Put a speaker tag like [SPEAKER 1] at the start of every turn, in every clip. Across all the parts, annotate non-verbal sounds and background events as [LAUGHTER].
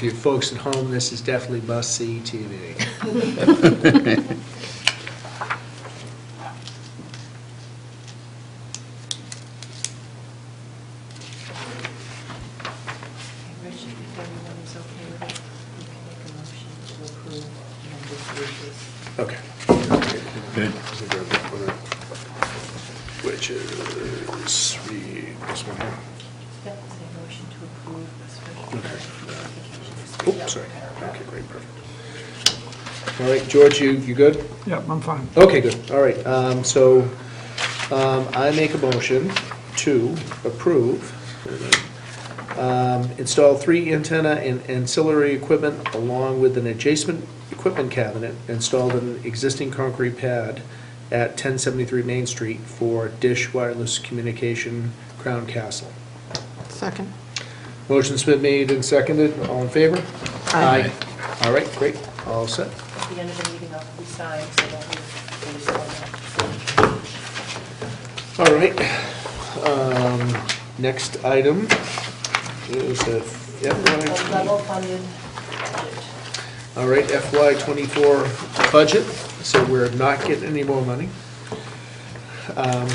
[SPEAKER 1] you folks at home, this is definitely must-see TV.
[SPEAKER 2] Richard, if everyone is okay with it, we can make a motion to approve number three, please.
[SPEAKER 1] Okay.
[SPEAKER 3] Good.
[SPEAKER 1] Which is, read this one here.
[SPEAKER 2] That was a motion to approve a special
[SPEAKER 1] Okay.
[SPEAKER 2] application.
[SPEAKER 1] Oops, sorry. Okay, great, perfect. All right, George, you, you good?
[SPEAKER 4] Yeah, I'm fine.
[SPEAKER 1] Okay, good, all right. Um, So um, I make a motion to approve, um, install three antenna and ancillary equipment along with an adjacent equipment cabinet installed in an existing concrete pad at 1073 Main Street for Dish Wireless Communication Crown Castle.
[SPEAKER 5] Second.
[SPEAKER 1] Motion's been made and seconded, all in favor?
[SPEAKER 5] Aye.
[SPEAKER 1] All right, great, all set.
[SPEAKER 2] At the end of the meeting, I'll resign, so that we, we just want
[SPEAKER 1] All right, um, next item is the
[SPEAKER 2] a
[SPEAKER 1] FY,
[SPEAKER 2] level funded budget.
[SPEAKER 1] all right, FY twenty-four budget, so we're not getting any more money. Um,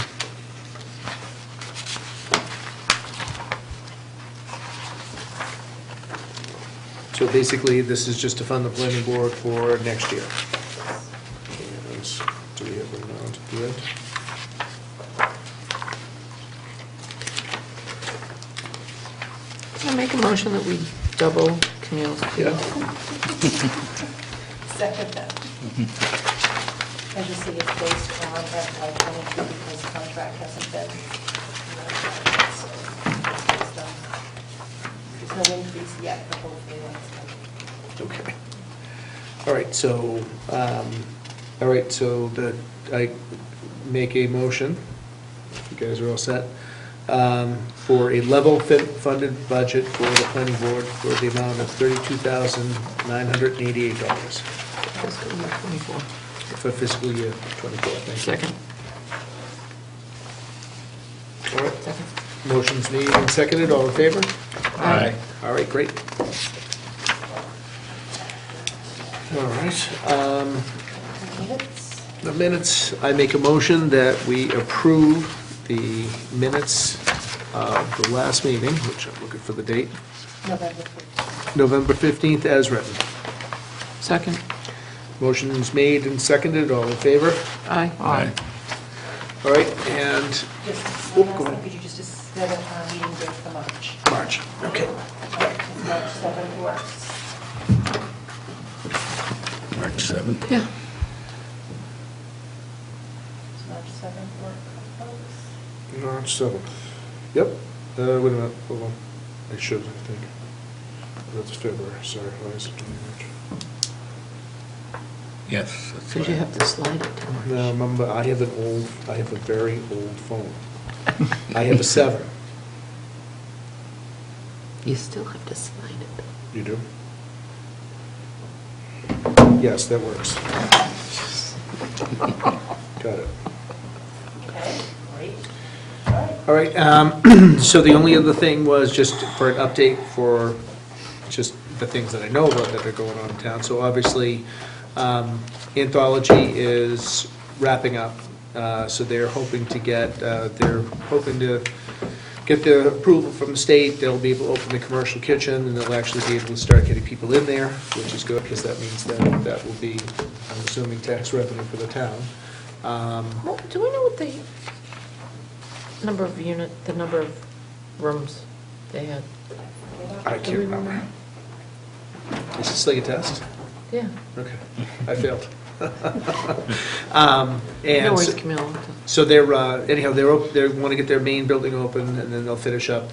[SPEAKER 1] So basically, this is just to fund the planning board for next year. And Do we have an amount to do it?
[SPEAKER 5] I make a motion that we double Camille's fee.
[SPEAKER 1] Yeah?
[SPEAKER 2] Second that. As you see, it's based on FY twenty-two because the contract hasn't been. ratified, so it's done. There's no increase yet, but hopefully that's
[SPEAKER 1] Okay.
[SPEAKER 2] coming.
[SPEAKER 1] All right, so, um, all right, so the, I make a motion, you guys are all set, um, for a level fi- funded budget for the planning board for the amount of thirty-two thousand nine hundred and eighty-eight dollars
[SPEAKER 5] Fiscal year 24.
[SPEAKER 1] for fiscal year twenty-four. Thank you.
[SPEAKER 5] Second.
[SPEAKER 1] All right, motion's made and seconded, all in favor?
[SPEAKER 3] Aye.
[SPEAKER 1] All right, great. All right, um,
[SPEAKER 2] Minutes?
[SPEAKER 1] The minutes, I make a motion that we approve the minutes of the last meeting, which I'm looking for the date,
[SPEAKER 2] November 14th.
[SPEAKER 1] November 15th as written.
[SPEAKER 5] Second.
[SPEAKER 1] Motion's made and seconded, all in favor?
[SPEAKER 5] Aye.
[SPEAKER 3] Aye.
[SPEAKER 1] All right, and
[SPEAKER 2] Just,
[SPEAKER 1] Oop,
[SPEAKER 2] one
[SPEAKER 1] go
[SPEAKER 2] last
[SPEAKER 1] ahead.
[SPEAKER 2] thing, could you just set up our meeting date for March?
[SPEAKER 1] March, okay.
[SPEAKER 2] March 7th works.
[SPEAKER 3] March 7th.
[SPEAKER 5] Yeah.
[SPEAKER 2] Does March 7th work, for folks?
[SPEAKER 1] March 7th. Yep, uh, wait a minute, hold on. I should, I think. That's February, sorry, why is it doing
[SPEAKER 3] Yes. that's
[SPEAKER 5] Because you
[SPEAKER 3] right.
[SPEAKER 5] have to slide it to March.
[SPEAKER 1] March? No, remember, I have an old, I have a very old phone. I have a 7.
[SPEAKER 5] You still have to slide it.
[SPEAKER 1] You do? Yes, that works. Got it.
[SPEAKER 2] Okay, great. All right.
[SPEAKER 1] All right, um, [CLEARS THROAT] so the only other thing was just for an update for just the things that I know about that are going on in town. So obviously, um, Anthology is wrapping up, uh, so they're hoping to get, uh, they're hoping to get the approval from the state, they'll be able to open the commercial kitchen, and they'll actually be able to start getting people in there, which is good, because that means that that will be, I'm assuming, tax revenue for the town. Um,
[SPEAKER 5] Well, do we know what the number of unit, the number of rooms they had?
[SPEAKER 1] I can't remember. Is this like a test?
[SPEAKER 5] Yeah.
[SPEAKER 1] Okay, I [LAUGHS] failed. Um,
[SPEAKER 5] No
[SPEAKER 1] And
[SPEAKER 5] worries,
[SPEAKER 1] so-
[SPEAKER 5] Camille.
[SPEAKER 1] so they're, uh, anyhow, they're, op- they want to get their main building open, and then they'll finish up